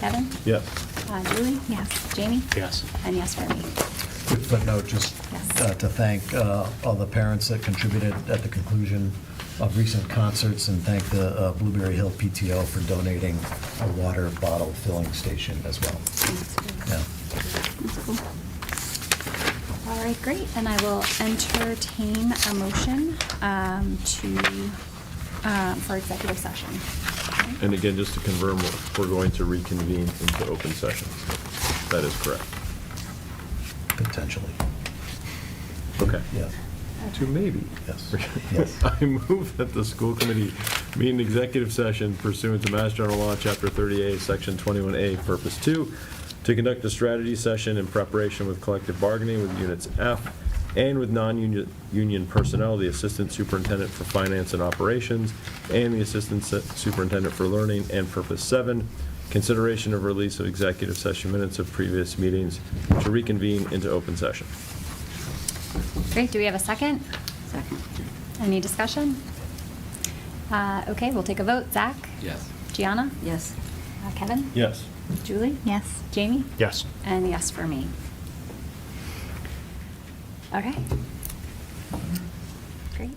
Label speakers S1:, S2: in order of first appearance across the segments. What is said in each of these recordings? S1: Kevin?
S2: Yes.
S1: Uh, Julie? Yes. Jamie?
S3: Yes.
S1: And yes for me.
S4: Quick footnote, just
S1: Yes.
S4: uh, to thank uh, all the parents that contributed at the conclusion of recent concerts, and thank the uh, Blueberry Hill PTO for donating a water bottle filling station as well.
S1: Thanks.
S4: Yeah.
S1: That's cool. All right, great, and I will entertain a motion um, to, um, for executive session.
S2: And again, just to confirm, we're going to reconvene into open session. That is correct.
S4: Potentially.
S2: Okay.
S4: Yeah.
S2: To maybe.
S4: Yes. Yes.
S2: I move that the school committee meet in executive session pursuant to Mass General Law, Chapter 38, Section 21A, Purpose 2, to conduct a strategy session in preparation with collective bargaining with units F and with non-union union personnel, the Assistant Superintendent for Finance and Operations, and the Assistant Se- Superintendent for Learning, and Purpose 7, consideration of release of executive session minutes of previous meetings to reconvene into open session.
S1: Great, do we have a second? Second. Any discussion? Uh, Okay, we'll take a vote. Zach?
S3: Yes.
S1: Gianna?
S5: Yes.
S1: Uh, Kevin?
S2: Yes.
S1: Julie? Yes. Jamie?
S3: Yes.
S1: And yes for me. Okay. Great.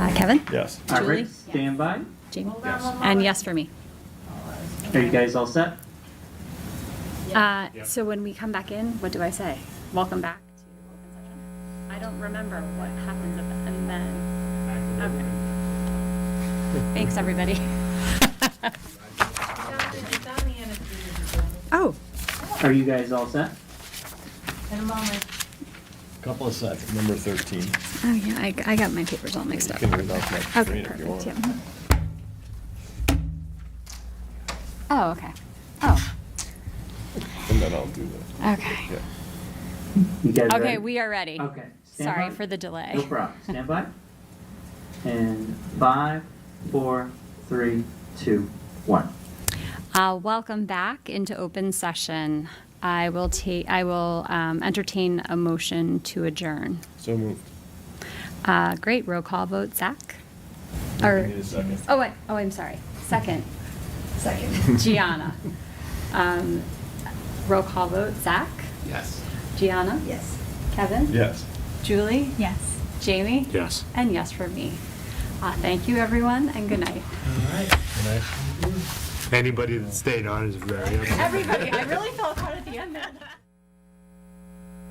S1: Uh, Kevin?
S2: Yes.
S6: All
S1: Julie?
S6: right, stand by.
S1: Jamie?
S6: Yes.
S1: And yes for me.
S6: Are you guys all set?
S1: Uh, So when we come back in, what do I say? Welcome back to open session. I don't remember what happens at the- and then. Okay. Thanks, everybody. Oh,
S6: Are you guys all set?
S4: Couple of seconds.
S2: Number 13.
S1: oh yeah, I, I got my papers all mixed up.
S2: You can read off my screen
S1: Okay,
S2: if you
S1: perfect,
S2: want.
S1: yep. Oh, okay. Oh,
S2: And then I'll do that.
S1: okay.
S2: Yeah.
S6: You guys ready?
S1: Okay, we are ready.
S6: Okay. stand
S1: Sorry
S6: by.
S1: for the delay.
S6: No problem. Stand by. And five, four, three, two, one.
S1: Uh, Welcome back into open session. I will take, I will um, entertain a motion to adjourn.
S2: So moved.
S1: Uh, Great, roll call vote, Zach?
S2: I
S1: Or,
S2: need a second.
S1: oh, wait, oh, I'm sorry, second. Second. Gianna. Um, Roll call vote, Zach?
S3: Yes.
S1: Gianna?
S5: Yes.
S1: Kevin?
S2: Yes.
S1: Julie? Yes. Jamie?
S3: Yes.
S1: And yes for me. Uh, Thank you, everyone, and good night.
S3: Anybody that stayed on is very upset.
S1: Everybody, I really felt hard at the end there.